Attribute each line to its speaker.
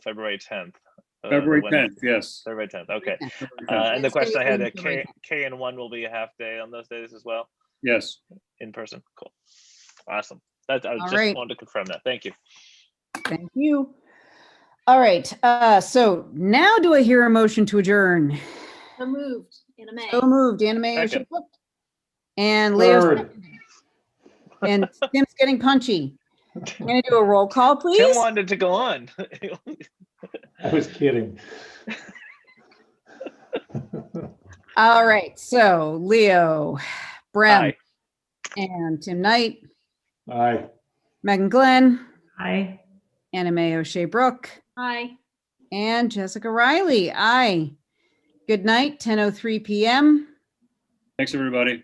Speaker 1: February tenth. uh,
Speaker 2: February tenth, yes.
Speaker 1: February tenth, okay.
Speaker 2: February
Speaker 1: Uh,
Speaker 2: 10th,
Speaker 1: and the
Speaker 3: Next day
Speaker 1: question I had,
Speaker 3: is
Speaker 1: uh, K,
Speaker 3: February
Speaker 1: K and one will be a half day on those days as well,
Speaker 2: Yes,
Speaker 1: in person, cool. Awesome, that, I
Speaker 3: All
Speaker 1: just
Speaker 3: right.
Speaker 1: wanted to confirm that, thank you.
Speaker 3: Thank you. All right, uh, so now do I hear a motion to adjourn?
Speaker 4: So moved, Anna May.
Speaker 3: So moved, Anna Mae
Speaker 1: Second.
Speaker 3: Oshia Cook. And Leo.
Speaker 2: Third.
Speaker 3: seconded. And Tim's getting punchy. I'm gonna do a roll call,
Speaker 1: Tim
Speaker 3: please.
Speaker 1: wanted to go on.
Speaker 5: I was kidding.
Speaker 3: All right, so Leo, Brem,
Speaker 1: Aye.
Speaker 3: and Tim Knight,
Speaker 5: Aye.
Speaker 3: Megan Glenn,
Speaker 6: Aye.
Speaker 3: Anna Mae O'Shea Brooke,
Speaker 4: Hi.
Speaker 3: and Jessica Riley. Aye. Good night, 10:03 PM.
Speaker 2: thanks, everybody.